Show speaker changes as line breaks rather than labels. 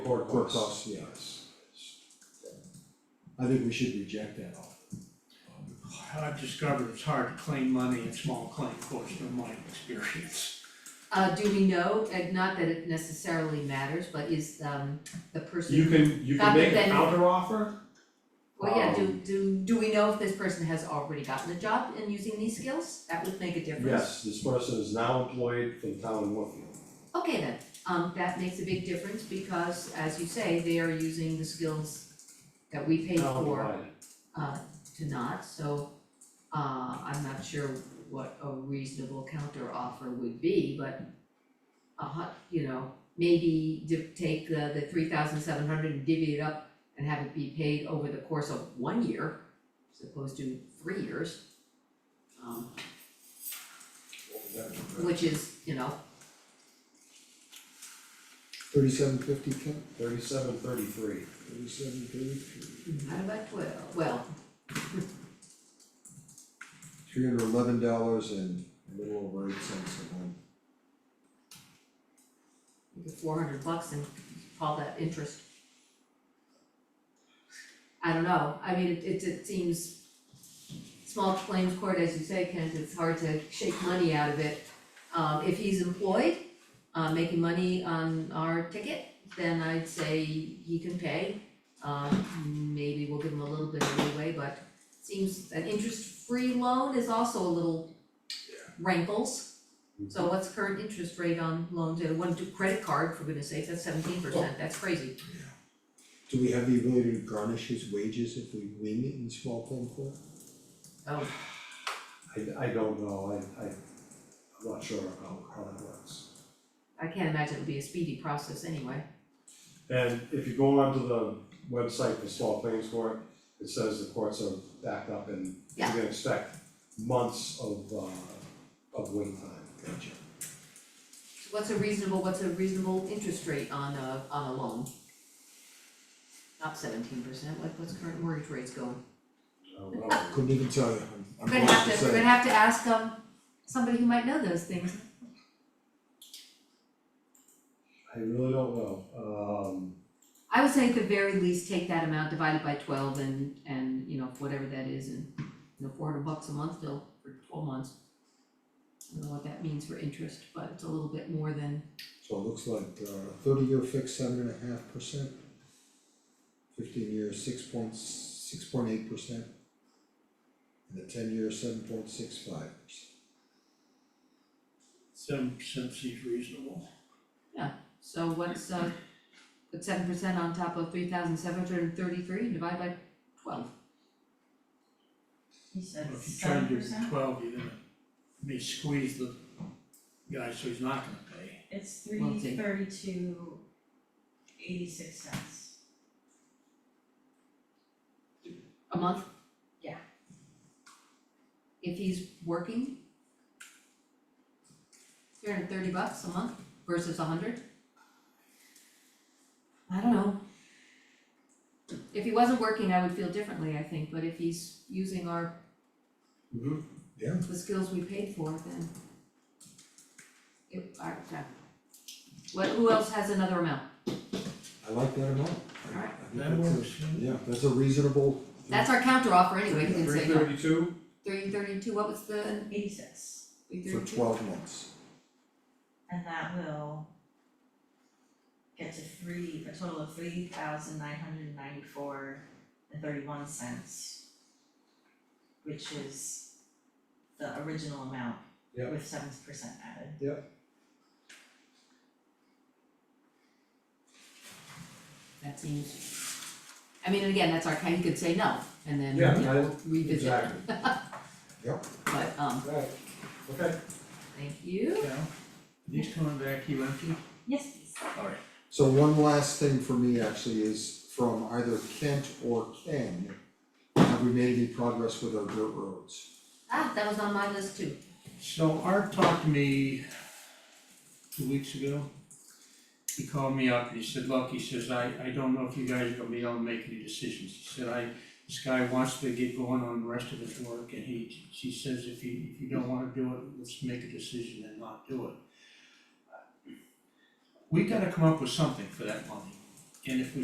courthouse.
courthouse, yes. I think we should reject that off.
I've discovered it's hard to claim money in small claim courts from my experience.
Uh, do we know, and not that it necessarily matters, but is, um, the person.
You can, you can
Got the
make a
benefit.
counter offer,
Well, oh, yeah, do,
um,
do, do we know if this person has already gotten a job in using these skills? That would make a difference.
yes, this person is now employed for the town of Woodfield.
Okay then, um, that makes a big difference because as you say, they are using the skills that we paid
Town
for.
provided.
uh to not, so uh I'm not sure what a reasonable counter offer would be, but a hu- you know, maybe di- take the the three thousand seven hundred and divvy it up and have it be paid over the course of one year as opposed to three years. Um which is, you know,
Thirty-seven fifty, Ken,
Thirty-seven, thirty-three.
thirty-seven thirty,
out about twelve, well,
three hundred eleven dollars and a little over eight cents a month.
four hundred bucks and call that interest. I don't know, I mean, it it it seems small claims court, as you say, Kent, it's hard to shake money out of it. Um if he's employed, uh making money on our ticket, then I'd say he can pay. Um maybe we'll give him a little bit of leeway, but seems an interest-free loan is also a little rankles. So what's current interest rate on loans, and one to credit card, for goodness sake, that's seventeen percent, that's crazy.
Do we have the ability to garnish his wages if we win in small claim court?
Oh,
I, I don't know, I, I, I'm not sure how, how that works.
I can't imagine it would be a speedy process anyway.
And if you go onto the website for small claims court, it says the courts are backed up and you
Yeah.
can expect months of, uh, of wait time. Gotcha.
So What's a reasonable, what's a reasonable interest rate on a, on a loan? Not seventeen percent, like what's current mortgage rates going?
I don't know.
Couldn't even tell you, I'm I'm
We're gonna have
lost
to, we're
inside.
gonna have to ask, um, somebody who might know those things.
I really don't know, um,
I would say at the very least, take that amount, divide it by twelve and, and, you know, whatever that is, and, you know, four hundred bucks a month still for twelve months. I don't know what that means for interest, but it's a little bit more than,
So it looks like uh thirty-year fixed, seven and a half percent. Fifteen-year, six point, six point eight percent. And the ten-year, seven point six five percent.
Seven percent seems reasonable.
so what's, uh, put seven percent on top of three thousand seven hundred and thirty-three, divide by twelve.
He said
If you
seven
turn to
percent,
twelve, you're gonna, may squeeze the guy, so he's not gonna pay.
it's
Well,
three
see.
thirty-two eighty-six cents.
A month?
Yeah.
If he's working? Three hundred and thirty bucks a month versus a hundred? I don't know. If he wasn't working, I would feel differently, I think, but if he's using our,
Mm-hmm,
mhm.
the skills we paid for, then it, I, yeah. What, who else has another amount?
I like that amount. I- I
Alright.
think
That
that's a-
works, yeah.
Yeah, that's a reasonable.
That's our counter offer anyway, he didn't
Three
say no.
thirty-two,
Three thirty-two, what was the,
Eighty-six,
three
For
thirty-two?
twelve months.
and that will get to three, a total of three thousand nine hundred ninety-four and thirty-one cents. Which is the original amount
Yep.
with seven percent added.
That seems, I mean, and again, that's our kind, you could say no, and then, you
Yeah,
know, revisit,
exactly,
but, um,
right, okay.
thank you.
Yeah. He's coming back, he empty?
Yes, please.
Alright.
So one last thing for me actually is from either Kent or Ken. Have we made any progress with our dirt roads?
Ah, that was on my list too.
So Art talked to me two weeks ago. He called me up and he said, look, he says, I, I don't know if you guys are gonna be able to make any decisions. He said, I, this guy wants to get going on the rest of his work and he, he says, if you, if you don't wanna do it, let's make a decision and not do it. We gotta come up with something for that money. And if we